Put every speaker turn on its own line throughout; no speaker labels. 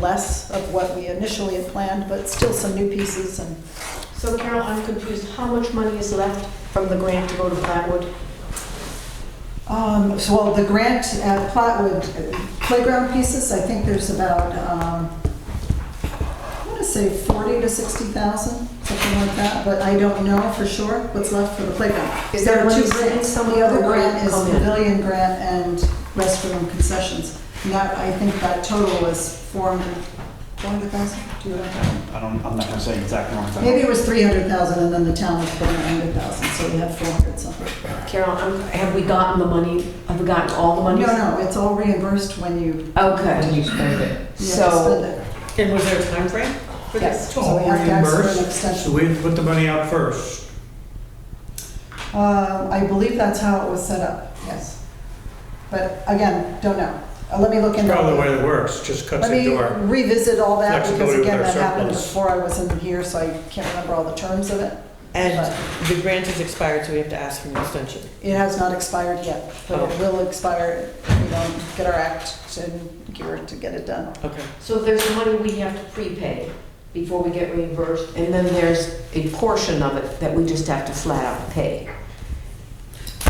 less of what we initially had planned, but still some new pieces and
So Carol, I'm confused. How much money is left from the grant to go to Flatwood?
Um, so, well, the grant at Platwood uh, playground pieces, I think there's about, um, I wanna say forty to sixty thousand, something like that, but I don't know for sure what's left for the playground.
Is there
There are two
money sitting
grants. The
somewhere
other
that will
grant is
come in?
pavilion grant and restroom concessions. And that, I think that total was four hundred, four hundred thousand, do you have that?
I don't, I'm not gonna say exact amount.
Maybe it was three hundred thousand and then the town was putting a hundred thousand, so we had four hundred something.
Carol, I'm- have we gotten the money? Have we gotten all the
No,
money?
no, it's all reimbursed when you
Okay.
And you spend it.
Yeah,
So,
spend it.
And was there a time frame for
yes.
this?
So we have to ask for an extension.
So we had to put the money out first.
Uh, I believe that's how it was set up, yes. But again, don't know. Uh, Let me look into.
Probably the way it works, just cuts
Let
into
me
our,
revisit all that because
flexibility with
again,
our
that happened
surplus.
before I was in here, so I can't remember all the terms of it.
And the grant has expired, so we have to ask for an extension.
It has not expired yet, but
Oh.
it will expire if we don't get our act and gear to get it done.
Okay.
So there's money we have to prepay before we get reimbursed, and then there's a portion of it that we just have to flat out pay.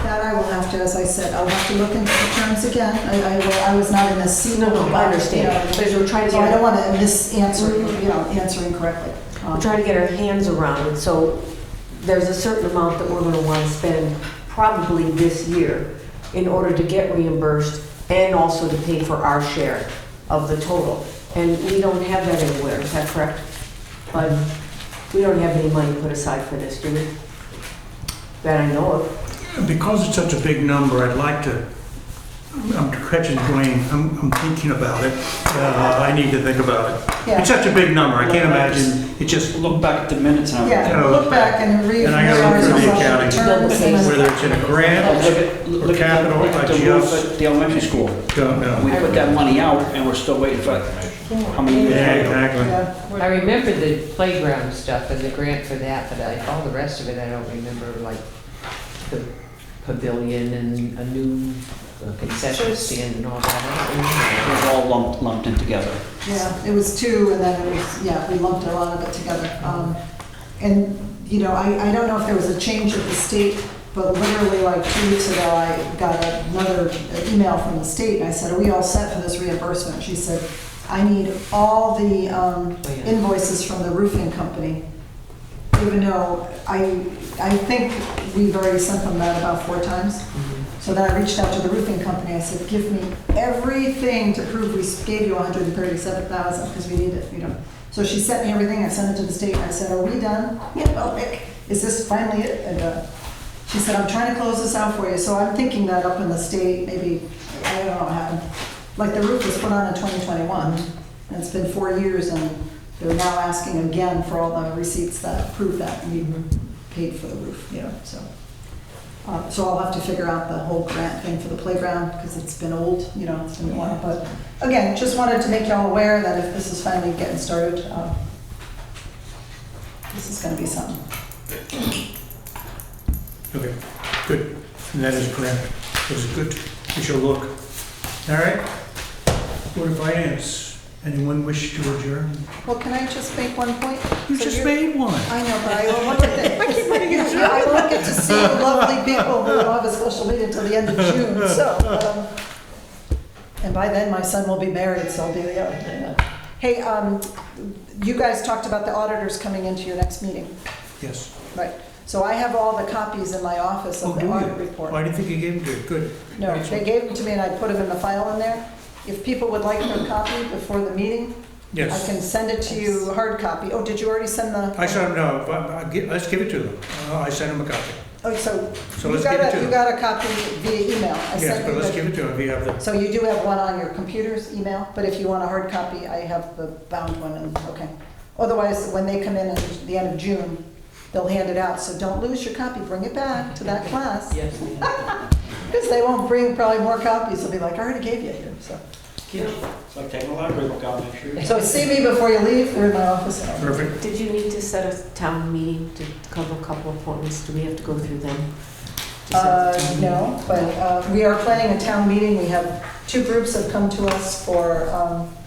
That I will have to, as I said, I'll have to look into the terms again. I, I will- I was not in this seat.
No, no, I understand. But as we're trying to
So I don't
get,
want to misanswer, you know, answering correctly.
we're
Um,
trying to get our hands around it, so there's a certain amount that we're gonna wanna spend probably this year in order to get reimbursed and also to pay for our share of the total. And we don't have that anywhere, is that correct? But we don't have any money put aside for this, do we? That I know of.
because it's such a big number, I'd like to, I'm catching Dwayne, I'm, I'm thinking about it. Uh, I need to think about it.
Yeah.
It's such a big number, I can't imagine, it just,
Look back at the minutes and everything.
Yeah, look back and read.
And I gotta look through the accounting.
Terms and-
whether it's in a
Look
grant,
at, look at
capital,
the- look at the
like
roof
just-
at the elementary school.
don't know.
We put that money out and we're still waiting for how many
Yeah,
years later.
exactly.
Yeah.
I remember the playground stuff and the grant for that, but I, all the rest of it, I don't remember, like the pavilion and a new concession stand and all that. I don't
It
remember.
was all lumped, lumped in together.
Yeah, it was two, and then it was, yeah, we lumped a lot of it together. Um, And, you know, I, I don't know if there was a change at the state, but literally like two weeks ago, I got another email from the state, and I said, are we all set for this reimbursement? She said, I need all the um,
Oh, yeah.
invoices from the roofing company, even though I, I think we've already sent them that about four times.
Mm-hmm.
So then I reached out to the roofing company, I said, give me everything to prove we gave you hundred and thirty-seven thousand, because we need it, you know. So she sent me everything, I sent it to the state, and I said, are we done? You know, like, is this finally it? And, uh, she said, I'm trying to close this out for you, so I'm thinking that up in the state, maybe, I don't know what happened. Like, the roof was put on in twenty twenty-one, and it's been four years, and they're now asking again for all the receipts that prove that we paid for the roof, you know, so. Uh, So I'll have to figure out the whole grant thing for the playground, because it's been old, you know, it's been a while. But again, just wanted to make y'all aware that if this is finally getting started, uh, this is gonna be something.
Okay, good. And that is correct. It was good. We shall look. All right. Board of Finance, anyone wish to adjourn?
Well, can I just make one point?
You
So
just
you're-
made one.
I know, but I will look at that. I keep running into it. I won't get to see lovely people who don't have a social media until the end of June, so. um, And by then, my son will be married, so I'll be the other. Hey, um, you guys talked about the auditors coming into your next meeting,
Yes.
right? So I have all the copies in my office
Oh,
of the
do you?
audit
Well, I
report.
didn't think you gave it to, good.
No, they gave them to me and I put them in the file in there. If people would like their copy before the meeting, I
Yes.
can send it to you, hard copy. Oh, did you already send the?
I said, no, but I gi- let's give it to them. Uh, I sent them a copy.
Oh, so
So
you
let's give
got
it to
a, you
them.
got a copy via email. I
Yes,
sent
but
you
let's
the-
give it to them if you have the,
So you do have one on your computer's email, but if you want a hard copy, I have the bound one and, okay. Otherwise, when they come in at the end of June, they'll hand it out, so don't lose your copy, bring it back to that class.
Yes, ma'am.
Because they won't bring probably more copies, they'll be like, I already gave you here, so.
It's like taking a library book out, make sure.
So see me before you leave, they're in my office.
perfect.
Did you need to set a town meeting to cover a couple appointments? Do we have to go through them? to set the
Uh,
town meeting?
no, but, uh, we are planning a town meeting, we have, two groups have come to us for, um,